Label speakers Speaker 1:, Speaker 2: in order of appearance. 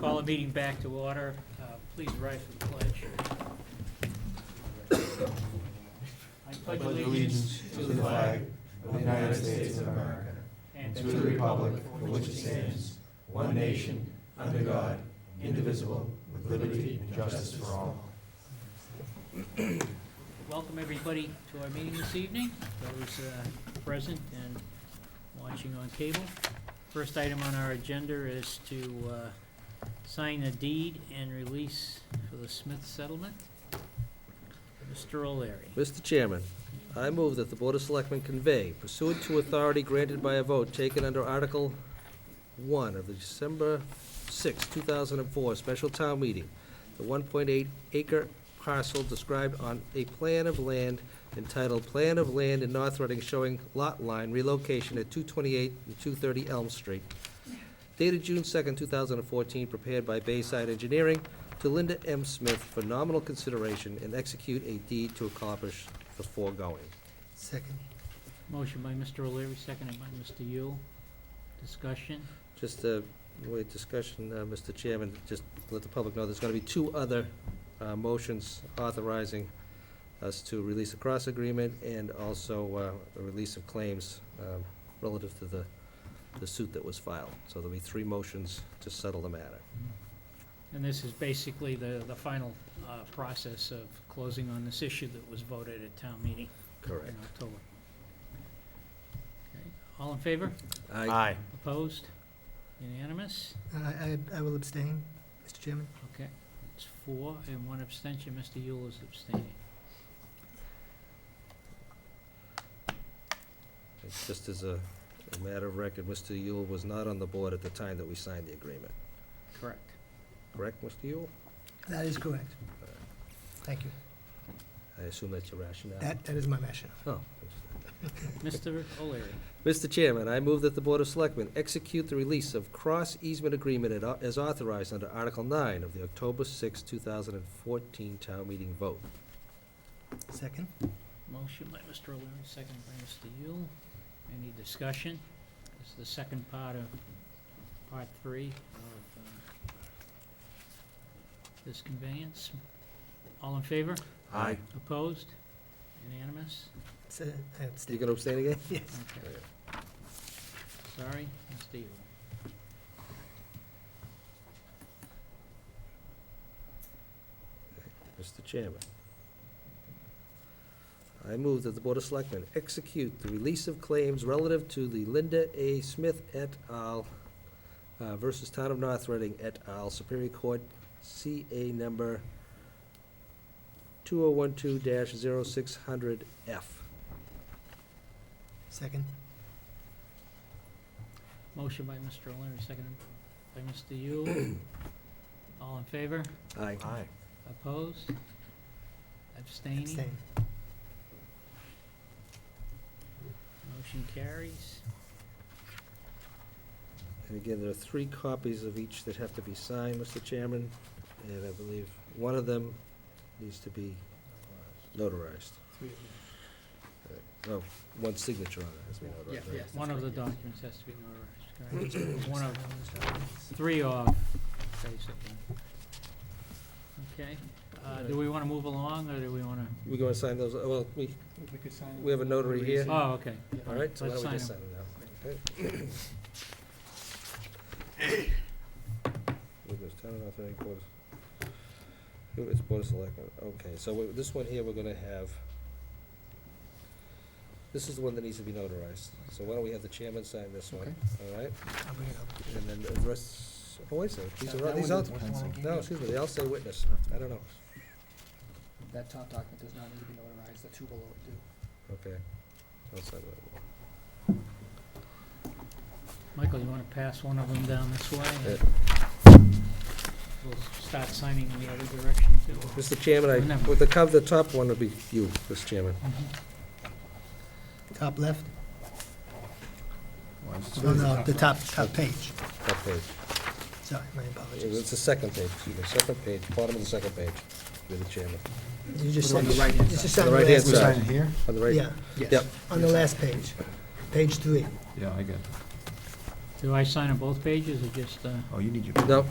Speaker 1: Call a meeting back to order. Uh, Please rise for the pledge. I pledge allegiance to the flag
Speaker 2: of the United States of America
Speaker 1: and
Speaker 2: to the republic for which it stands, one nation, under God, indivisible, with liberty and justice for all.
Speaker 1: Welcome, everybody, to our meeting this evening, those uh, present and watching on cable. First item on our agenda is to uh, sign a deed and release for the Smith settlement. Mr. O'Leary.
Speaker 3: Mr. Chairman, I move that the Board of Selectmen convey pursuant to authority granted by a vote taken under Article 1 of the December 6, 2004 Special Town Meeting, the 1.8 acre parcel described on a plan of land entitled Plan of Land in North Reading showing lot line relocation at 228 and 230 Elm Street, dated June 2, 2014, prepared by Bayside Engineering, to Linda M. Smith for nominal consideration and execute a deed to accomplish the foregoing.
Speaker 2: Second.
Speaker 1: Motion by Mr. O'Leary, seconded by Mr. Yule. Discussion?
Speaker 3: Just a, wait, discussion, uh, Mr. Chairman, just to let the public know, there's gonna be two other uh, motions authorizing us to release a cross agreement and also uh, a release of claims um, relative to the, the suit that was filed. So there'll be three motions to settle the matter.
Speaker 1: And this is basically the, the final uh, process of closing on this issue that was voted at town meeting in October. Okay. All in favor?
Speaker 3: Aye.
Speaker 1: Opposed? Unanimous?
Speaker 2: I, I will abstain, Mr. Chairman.
Speaker 1: Okay, it's four and one abstention. Mr. Yule is abstaining.
Speaker 3: It's Just as a a matter of record, Mr. Yule was not on the board at the time that we signed the agreement,
Speaker 1: Correct.
Speaker 3: correct, Mr. Yule?
Speaker 2: That is correct. Thank you.
Speaker 3: I assume that's your rationale?
Speaker 2: That, that is my rationale.
Speaker 3: Oh.
Speaker 1: Mr. O'Leary,
Speaker 3: Mr. Chairman, I move that the Board of Selectmen execute the release of cross easement agreement at au- as authorized under Article 9 of the October 6, 2014 town meeting vote.
Speaker 2: Second.
Speaker 1: motion by Mr. O'Leary, second by Mr. Yule. Any discussion? This is the second part of, part three of uh, this conveyance. All in favor?
Speaker 3: Aye.
Speaker 1: Opposed? Unanimous?
Speaker 2: S- I
Speaker 3: You
Speaker 2: abstain.
Speaker 3: gonna abstain again?
Speaker 2: Yes.
Speaker 1: Okay. Sorry, Mr. Yule.
Speaker 3: Mr. Chairman, I move that the Board of Selectmen execute the release of claims relative to the Linda A. Smith et al. uh, versus Town of North Reading et al. Superior Court CA number 2012-0600F.
Speaker 2: Second.
Speaker 1: Motion by Mr. O'Leary, seconded by Mr. Yule. All in favor?
Speaker 3: Aye.
Speaker 1: Opposed? Abstaining?
Speaker 2: Abstain.
Speaker 1: Motion carries.
Speaker 3: And again, there are three copies of each that have to be signed, Mr. Chairman, and I believe one of them needs to be notarized. Oh, one signature on it has to be notarized, right?
Speaker 1: One of the documents has to be notarized, correct? One of,
Speaker 2: of.
Speaker 1: three off, basically. Okay, uh, do we wanna move along, or do we wanna?
Speaker 3: We gonna sign those, oh, well, we, we have a notary here, all
Speaker 1: Oh, okay.
Speaker 3: right, so why
Speaker 1: Let's
Speaker 3: don't we just
Speaker 1: sign
Speaker 3: sign
Speaker 1: them.
Speaker 3: it now? With this town of North Reading Board of- who is Board of Selectmen, okay, so we- this one here, we're gonna have, this is the one that needs to be notarized, so why don't we have the chairman sign this one, all right?
Speaker 2: I'll bring it up.
Speaker 3: And then the rest, oh, wait a second, these
Speaker 4: That-
Speaker 3: are, all
Speaker 4: that
Speaker 3: these
Speaker 4: one
Speaker 3: all,
Speaker 4: is one I gave
Speaker 3: no,
Speaker 4: you.
Speaker 3: excuse me, they all say witness, I don't know,
Speaker 4: That top document does not need to be notarized, the two below it do.
Speaker 3: okay. I'll sign that one.
Speaker 1: Michael, you wanna pass one of them down this way?
Speaker 3: Yeah.
Speaker 1: We'll start signing in the other direction, too.
Speaker 3: Mr. Chairman, I,
Speaker 1: Remember.
Speaker 3: with the cover, the top one would be you, Mr. Chairman.
Speaker 2: Top left? No, no, the top, top page.
Speaker 3: Top page.
Speaker 2: Sorry, my
Speaker 3: It's
Speaker 2: apologies.
Speaker 3: the second page, excuse me, second page, bottom of the second page, you're the chairman.
Speaker 2: You just
Speaker 4: Put it
Speaker 2: said.
Speaker 4: on the right-hand
Speaker 2: It's
Speaker 4: side.
Speaker 2: just
Speaker 3: On
Speaker 2: on
Speaker 3: the
Speaker 2: the
Speaker 3: right-hand
Speaker 2: last,
Speaker 3: side,
Speaker 4: here?
Speaker 3: on the right.
Speaker 2: yeah,
Speaker 3: Yep,
Speaker 2: on the last page, page three.
Speaker 5: Yeah, I get it.
Speaker 1: Do I sign on both pages, or just, uh?
Speaker 5: Oh, you need your.
Speaker 3: no,